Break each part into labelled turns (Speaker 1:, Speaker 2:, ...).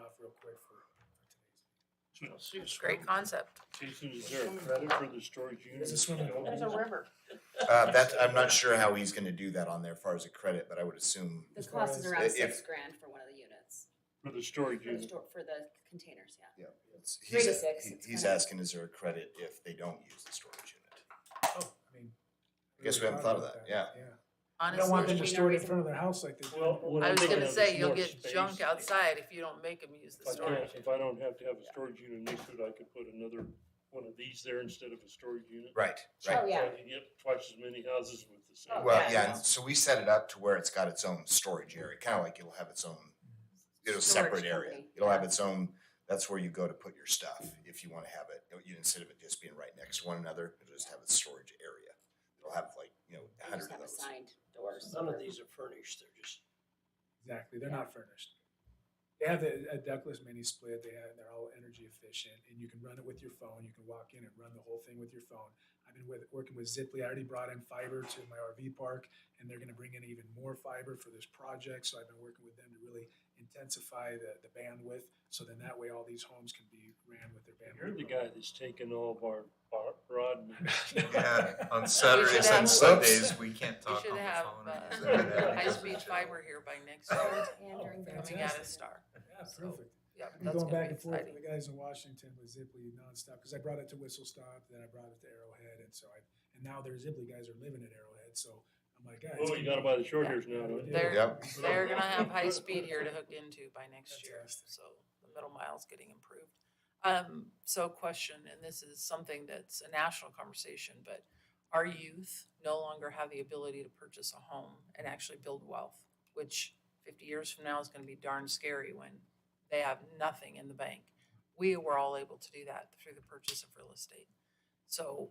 Speaker 1: off real quick for, for today's.
Speaker 2: Great concept.
Speaker 3: Jason, is there a credit for the storage unit?
Speaker 1: There's a swimming pool.
Speaker 4: There's a river.
Speaker 5: Uh, that, I'm not sure how he's gonna do that on there as far as a credit, but I would assume,
Speaker 6: The
Speaker 1: As far
Speaker 6: cost is
Speaker 1: as-
Speaker 6: around
Speaker 5: if-
Speaker 6: six grand for one of the units,
Speaker 3: For the storage
Speaker 6: for the
Speaker 3: unit,
Speaker 6: store, for the containers, yeah.
Speaker 5: yeah. it's-
Speaker 6: Three
Speaker 5: he's-
Speaker 6: to six,
Speaker 5: he-
Speaker 6: it's
Speaker 5: He's
Speaker 6: kinda-
Speaker 5: asking, is there a credit if they don't use the storage unit?
Speaker 1: Oh, I mean,
Speaker 5: I guess we haven't thought of that, yeah.
Speaker 1: Yeah. You don't want them to
Speaker 2: Honestly,
Speaker 6: There's
Speaker 1: store it in
Speaker 6: no
Speaker 1: front of their house like they do.
Speaker 3: Well, what
Speaker 2: I was
Speaker 3: I'm thinking
Speaker 2: gonna
Speaker 3: of is
Speaker 2: say, you'll
Speaker 3: more
Speaker 2: get
Speaker 3: space.
Speaker 2: junk outside if you don't make them use the
Speaker 3: If I
Speaker 2: storage.
Speaker 3: can't- If I don't have to have a storage unit next to it, I could put another one of these there instead of a storage unit.
Speaker 5: Right,
Speaker 6: Oh,
Speaker 5: right.
Speaker 3: So I
Speaker 6: yeah,
Speaker 3: could get twice as many houses with the same.
Speaker 6: Oh,
Speaker 5: Well,
Speaker 6: yeah,
Speaker 5: yeah,
Speaker 6: yeah.
Speaker 5: and so we set it up to where it's got its own storage area, kinda like it'll have its own, it'll
Speaker 6: Storage
Speaker 5: separate area.
Speaker 6: company.
Speaker 5: It'll have its own, that's where you go to put your stuff, if you wanna have it, you, instead of it just being right next to one another, it'll just have a storage area. It'll have like, you know, a
Speaker 6: they just
Speaker 5: hundred of
Speaker 6: have
Speaker 5: those.
Speaker 6: assigned doors.
Speaker 7: None of these are furnished, they're just,
Speaker 1: Exactly, they're not furnished. They have the a Douglas mini split, they have, they're all energy efficient, and you can run it with your phone, you can walk in and run the whole thing with your phone. I've been with, working with Ziply, I already brought in fiber to my RV park, and they're gonna bring in even more fiber for this project, so I've been working with them to really intensify the, the bandwidth, so then that way all these homes can be ran with their bandwidth.
Speaker 3: You're the guy that's taking all of our bar- broadband.
Speaker 8: Yeah, on
Speaker 2: We should
Speaker 8: Saturdays
Speaker 2: have- uh,
Speaker 8: and Sundays, we can't
Speaker 2: We
Speaker 8: talk
Speaker 2: should
Speaker 8: on the
Speaker 2: have
Speaker 8: phone.
Speaker 2: uh,
Speaker 8: or use internet because
Speaker 2: high-speed
Speaker 8: it's-
Speaker 2: fiber here by next year,
Speaker 6: And during the.
Speaker 2: coming out of Star.
Speaker 1: Yeah, perfect.
Speaker 2: Yep,
Speaker 1: I'm
Speaker 2: that's
Speaker 1: going
Speaker 2: gonna
Speaker 1: back
Speaker 2: be
Speaker 1: and forth with
Speaker 2: exciting.
Speaker 1: the guys in Washington with Zipley nonstop because I brought it to Whistle Stop, then I brought it to Arrowhead, and so I and now their Zipley guys are living at Arrowhead, so I'm like, guys,
Speaker 3: Oh, you gotta buy the short hairs now, don't you?
Speaker 2: They're,
Speaker 5: Yep.
Speaker 2: they're gonna have high speed here to hook into by next year,
Speaker 1: Fantastic.
Speaker 2: so the middle mile's getting improved. Um, so question, and this is something that's a national conversation, but our youth no longer have the ability to purchase a home and actually build wealth, which fifty years from now is gonna be darn scary when they have nothing in the bank. We were all able to do that through the purchase of real estate. So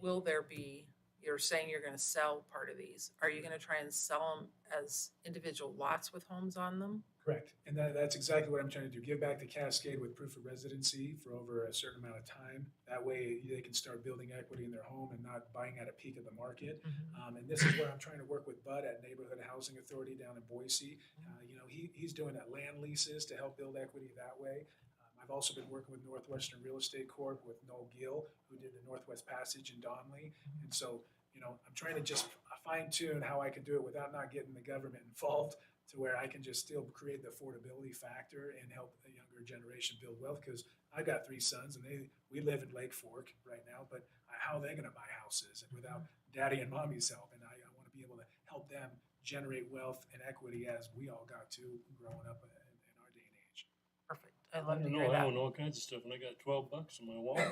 Speaker 2: will there be, you're saying you're gonna sell part of these, are you gonna try and sell them as individual lots with homes on them?
Speaker 1: Correct. And that, that's exactly what I'm trying to do. Give back to Cascade with proof of residency for over a certain amount of time. That way they can start building equity in their home and not buying at a peak of the market. Um, and this is where I'm trying to work with Bud at Neighborhood Housing Authority down in Boise. Uh, you know, he, he's doing that land leases to help build equity that way. Um, I've also been working with Northwestern Real Estate Corp with Noel Gill, who did the Northwest Passage in Donley. And so, you know, I'm trying to just fine tune how I can do it without not getting the government involved to where I can just still create the affordability factor and help the younger generation build wealth. Because I've got three sons and they, we live in Lake Fork right now, but uh, how are they going to buy houses and without daddy and mommy's help? And I, I want to be able to help them generate wealth and equity as we all got to growing up in, in our day and age.
Speaker 2: Perfect,
Speaker 3: I
Speaker 2: I'd love to
Speaker 3: don't know,
Speaker 2: hear
Speaker 3: I
Speaker 2: that.
Speaker 3: own all kinds of stuff and I got twelve bucks in my wallet.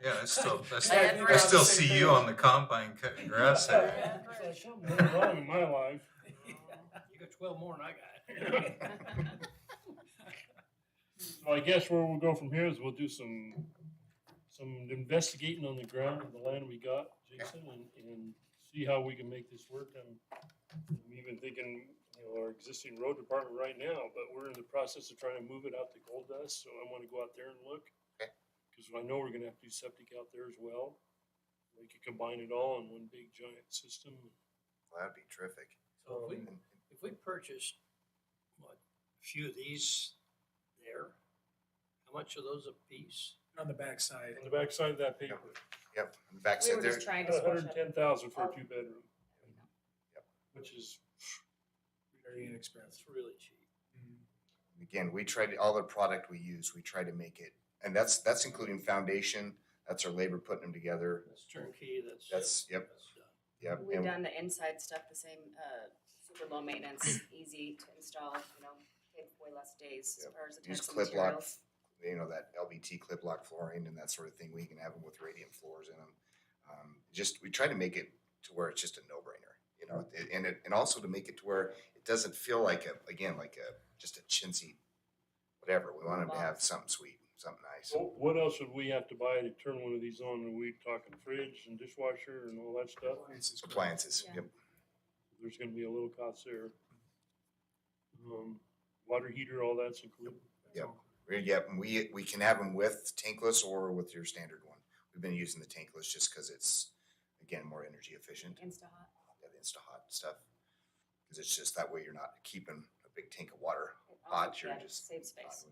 Speaker 8: Yeah, I still, I
Speaker 2: had
Speaker 8: still, I
Speaker 2: rows
Speaker 8: still
Speaker 2: and
Speaker 8: see
Speaker 2: things.
Speaker 8: you on the combine cutting grass.
Speaker 3: It's like something went wrong in my life.
Speaker 7: you got twelve more than I got.
Speaker 3: So I guess where we'll go from here is we'll do some, some investigating on the ground of the land we got, Jason, and, and see how we can make this work. I'm, I'm even thinking, you know, our existing road department right now, but we're in the process of trying to move it out to Gold Dust, so I wanna go out there and look.
Speaker 5: Okay.
Speaker 3: Cause I know we're gonna have to do septic out there as well. We could combine it all in one big giant system.
Speaker 5: Well, that'd be terrific.
Speaker 7: So if we,
Speaker 5: Um,
Speaker 7: if we purchased, what, a few of these there, how much are those a piece?
Speaker 1: And on the backside,
Speaker 3: On the backside of that paper,
Speaker 5: Yep, on the
Speaker 6: We
Speaker 5: backside
Speaker 6: were
Speaker 5: there,
Speaker 6: just trying to
Speaker 3: about
Speaker 6: squish
Speaker 3: hundred and
Speaker 6: it.
Speaker 3: ten thousand for a two bedroom.
Speaker 6: There you go.
Speaker 3: Which is
Speaker 1: very
Speaker 7: That's
Speaker 1: inexpensive.
Speaker 7: really cheap.
Speaker 5: again, we try to, all the product we use, we try to make it, and that's, that's including foundation, that's our labor putting them together.
Speaker 7: That's turnkey, that's.
Speaker 5: That's- yep.
Speaker 7: that's done.
Speaker 5: Yep,
Speaker 6: We've
Speaker 5: and-
Speaker 6: done the inside stuff the same, uh, super low maintenance, easy to install, you know, take way less days as
Speaker 5: Yep.
Speaker 6: far as the
Speaker 5: use
Speaker 6: types of
Speaker 5: clip lock,
Speaker 6: materials.
Speaker 5: you know, that LVT clip lock flooring and that sort of thing. We can have them with radiant floors in them. Um, just, we try to make it to where it's just a no-brainer, you know, it- and it, and also to make it to where it doesn't feel like a, again, like a, just a chintzy, whatever. We want them to have something sweet, something nice.
Speaker 3: Well, What else would we have to buy to turn one of these on? Are we talking fridge and dishwasher and all that stuff?
Speaker 1: Appliances is great.
Speaker 5: Appliances,
Speaker 6: Yeah.
Speaker 5: yep.
Speaker 3: There's gonna be a little cost there. Um, water heater, all that's included.
Speaker 5: Yep. We- Yep, and we, we can have them with tankless or with your standard one. We've been using the tankless just because it's, again, more energy efficient,
Speaker 6: Insta-hot.
Speaker 5: that Insta-Hot stuff. Because it's just that way you're not keeping a big tank of water
Speaker 6: I'll
Speaker 5: Odd,
Speaker 6: take
Speaker 5: sure,
Speaker 6: that.
Speaker 5: just
Speaker 6: Save space.